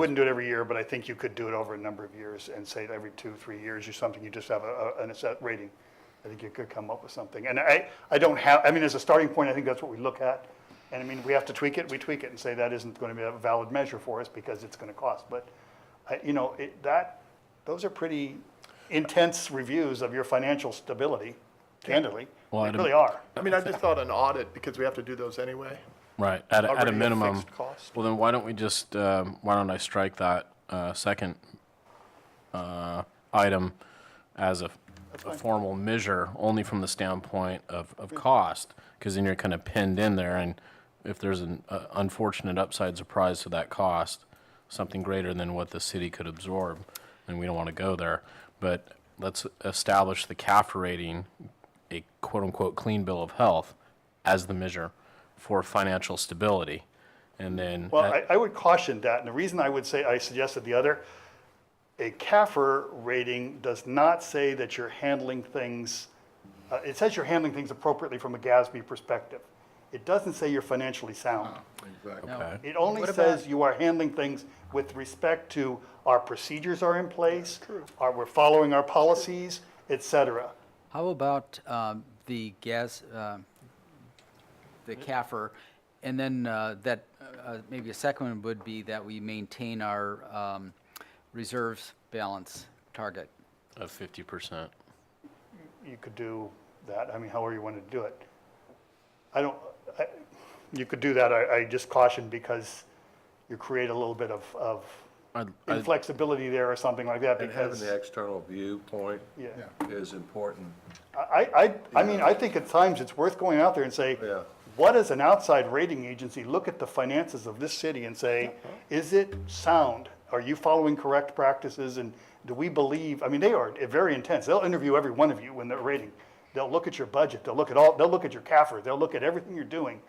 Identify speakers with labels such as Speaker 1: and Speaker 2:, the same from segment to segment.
Speaker 1: Wouldn't do it every year, but I think you could do it over a number of years and say that every two, three years or something, you just have a, a- an asset rating. I think you could come up with something. And I, I don't have, I mean, as a starting point, I think that's what we look at. And I mean, we have to tweak it, we tweak it and say that isn't going to be a valid measure for us because it's going to cost. But, I- you know, it, that, those are pretty intense reviews of your financial stability, candidly.
Speaker 2: Well,
Speaker 1: They
Speaker 2: I'd-
Speaker 1: really are.
Speaker 3: I mean, I just thought an audit, because we have to do those anyway.
Speaker 2: Right, at, a- at
Speaker 3: Already
Speaker 2: a
Speaker 3: a
Speaker 2: minimum.
Speaker 3: fixed cost.
Speaker 2: Well, then why don't we just, um, why don't I strike that uh, second uh, item as a a formal measure, only from the standpoint of, of cost? Because then you're kind of pinned in there, and if there's an uh, unfortunate upside surprise to that cost, something greater than what the city could absorb, then we don't want to go there. But let's establish the CAFR rating, a quote-unquote clean bill of health, as the measure for financial stability. And then,
Speaker 1: Well,
Speaker 2: at-
Speaker 1: I, I would caution that, and the reason I would say, I suggested the other, a CAFR rating does not say that you're handling things, uh, it says you're handling things appropriately from a GASB perspective. It doesn't say you're financially sound.
Speaker 2: okay.
Speaker 1: It only says you are handling things with respect to our procedures are in place, are, we're following our policies, et cetera.
Speaker 4: How about um, the gas, uh, the CAFR, and then uh, that, uh, maybe a second one would be that we maintain our um, reserves balance target.
Speaker 2: of 50%.
Speaker 1: you could do that, I mean, however you wanted to do it. I don't, I, you could do that, I, I just caution because you create a little bit of, of
Speaker 2: I'd- I'd-
Speaker 1: inflexibility there or something like that
Speaker 5: And having
Speaker 1: because,
Speaker 5: the external viewpoint
Speaker 1: yeah.
Speaker 5: is important.
Speaker 1: I, I, I mean, I think at times it's worth going out there and say,
Speaker 5: Yeah.
Speaker 1: what does an outside rating agency look at the finances of this city and say,
Speaker 3: Uh-huh.
Speaker 1: is it sound? Are you following correct practices and do we believe, I mean, they are very intense. They'll interview every one of you when they're rating. They'll look at your budget, they'll look at all, they'll look at your CAFR, they'll look at everything you're doing.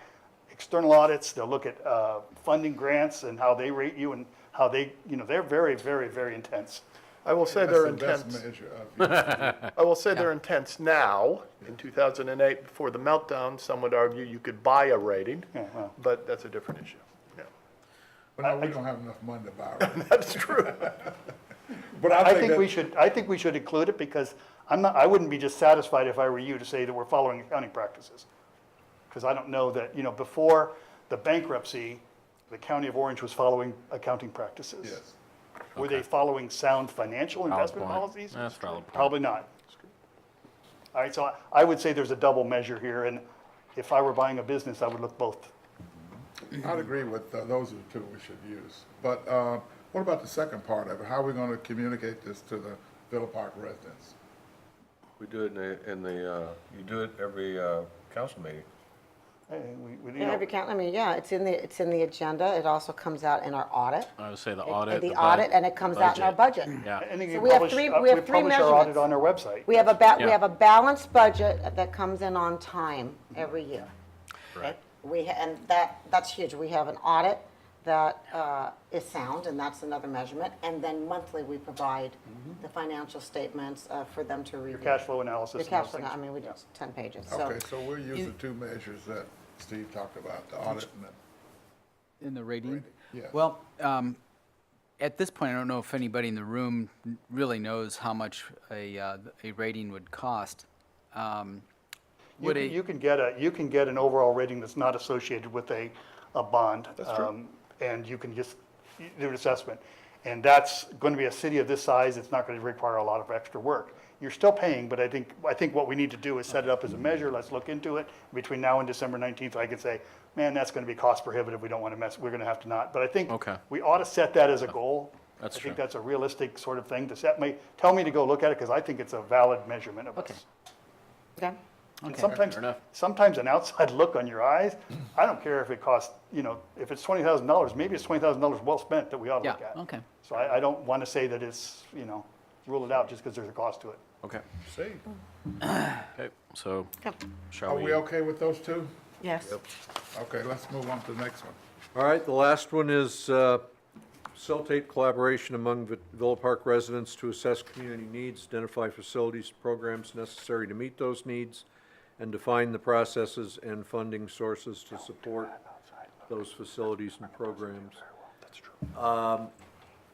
Speaker 1: External audits, they'll look at, uh, funding grants and how they rate you and how they, you know, they're very, very, very intense.
Speaker 3: I will say
Speaker 6: That's
Speaker 3: they're
Speaker 6: the best
Speaker 3: intense,
Speaker 6: measure of-
Speaker 3: I will say they're intense now. In 2008, before the meltdown, some would argue you could buy a rating,
Speaker 1: Yeah, well.
Speaker 3: but that's a different issue. Yeah.
Speaker 6: But no, we don't have enough money to buy it.
Speaker 3: That's true.
Speaker 6: But
Speaker 1: I think
Speaker 6: that-
Speaker 1: we should, I think we should include it because I'm not, I wouldn't be just satisfied if I were you to say that we're following accounting practices. Because I don't know that, you know, before the bankruptcy, the county of Orange was following accounting practices.
Speaker 6: Yes.
Speaker 1: Were they following sound financial investment
Speaker 2: point.
Speaker 1: policies?
Speaker 2: That's a valid point.
Speaker 1: Probably not. All right, so I- I would say there's a double measure here and if I were buying a business, I would look both.
Speaker 6: I'd agree with, uh, those are the two we should use. But uh, what about the second part of it? How are we going to communicate this to the Villa Park residents?
Speaker 5: We do it in the, in the, uh, you do it every, uh, council meeting.
Speaker 1: Eh, we- we- you
Speaker 7: Yeah,
Speaker 1: know,
Speaker 7: every coun- I mean, yeah, it's in the, it's in the agenda. It also comes out in our audit.
Speaker 2: I would say the
Speaker 7: It-
Speaker 2: audit.
Speaker 7: The
Speaker 2: bud-
Speaker 7: audit, and it comes out in our budget.
Speaker 2: Yeah.
Speaker 1: And then
Speaker 7: So
Speaker 1: you
Speaker 7: we have
Speaker 1: publish,
Speaker 7: three-
Speaker 1: uh,
Speaker 7: we have
Speaker 1: we
Speaker 7: three
Speaker 1: publish our audit
Speaker 7: measurements.
Speaker 1: on our website.
Speaker 7: We have a ba,
Speaker 2: Yeah.
Speaker 7: we have a balanced budget that comes in on time every year. Right. We, ha- and that, that's huge. We have an audit that uh, is sound, and that's another measurement. And then monthly, we provide the financial statements uh, for them to review.
Speaker 1: Mm-hmm. Cash flow analysis.
Speaker 7: Your
Speaker 1: and
Speaker 7: cash
Speaker 1: those
Speaker 7: flow,
Speaker 1: things.
Speaker 7: I mean, we do 10 pages, so.
Speaker 6: Okay, so we'll use the two measures that Steve talked about, the audit and the,
Speaker 4: In the rating?
Speaker 6: yeah.
Speaker 4: Well, um, at this point, I don't know if anybody in the room n- really knows how much a, uh, a rating would cost. Um,
Speaker 1: You
Speaker 4: Would
Speaker 1: can,
Speaker 4: a-
Speaker 1: you can get a, you can get an overall rating that's not associated with a, a bond. That's true. And you can just y- do an assessment. And that's going to be a city of this size, it's not going to require a lot of extra work. You're still paying, but I think, I think what we need to do is set it up as a measure, let's look into it. Between now and December 19th, I can say, man, that's going to be cost prohibitive, we don't want to mess, we're going to have to not. But I think
Speaker 2: Okay.
Speaker 1: we ought to set that as a goal.
Speaker 2: That's
Speaker 1: I think
Speaker 2: true.
Speaker 1: that's a realistic sort of thing to set me, tell me to go look at it because I think it's a valid measurement of us.
Speaker 7: Okay.
Speaker 1: And sometimes,
Speaker 2: Fair enough.
Speaker 1: sometimes an outside look on your eyes, I don't care if it costs, you know, if it's twenty thousand dollars, maybe it's twenty thousand dollars well spent that we ought to
Speaker 4: Yeah,
Speaker 1: look at.
Speaker 4: okay.
Speaker 1: So I, I don't want to say that it's, you know, rule it out just because there's a cost to it.
Speaker 2: Okay,
Speaker 6: see.
Speaker 2: okay, so
Speaker 6: Are
Speaker 2: shall we?
Speaker 6: we okay with those two?
Speaker 7: Yes.
Speaker 6: Okay, let's move on to the next one.
Speaker 8: All right, the last one is uh, cell tape collaboration among Vi- Villa Park residents to assess community needs, identify facilities, programs necessary to meet those needs, and define the processes and funding sources to support those facilities and programs. Um,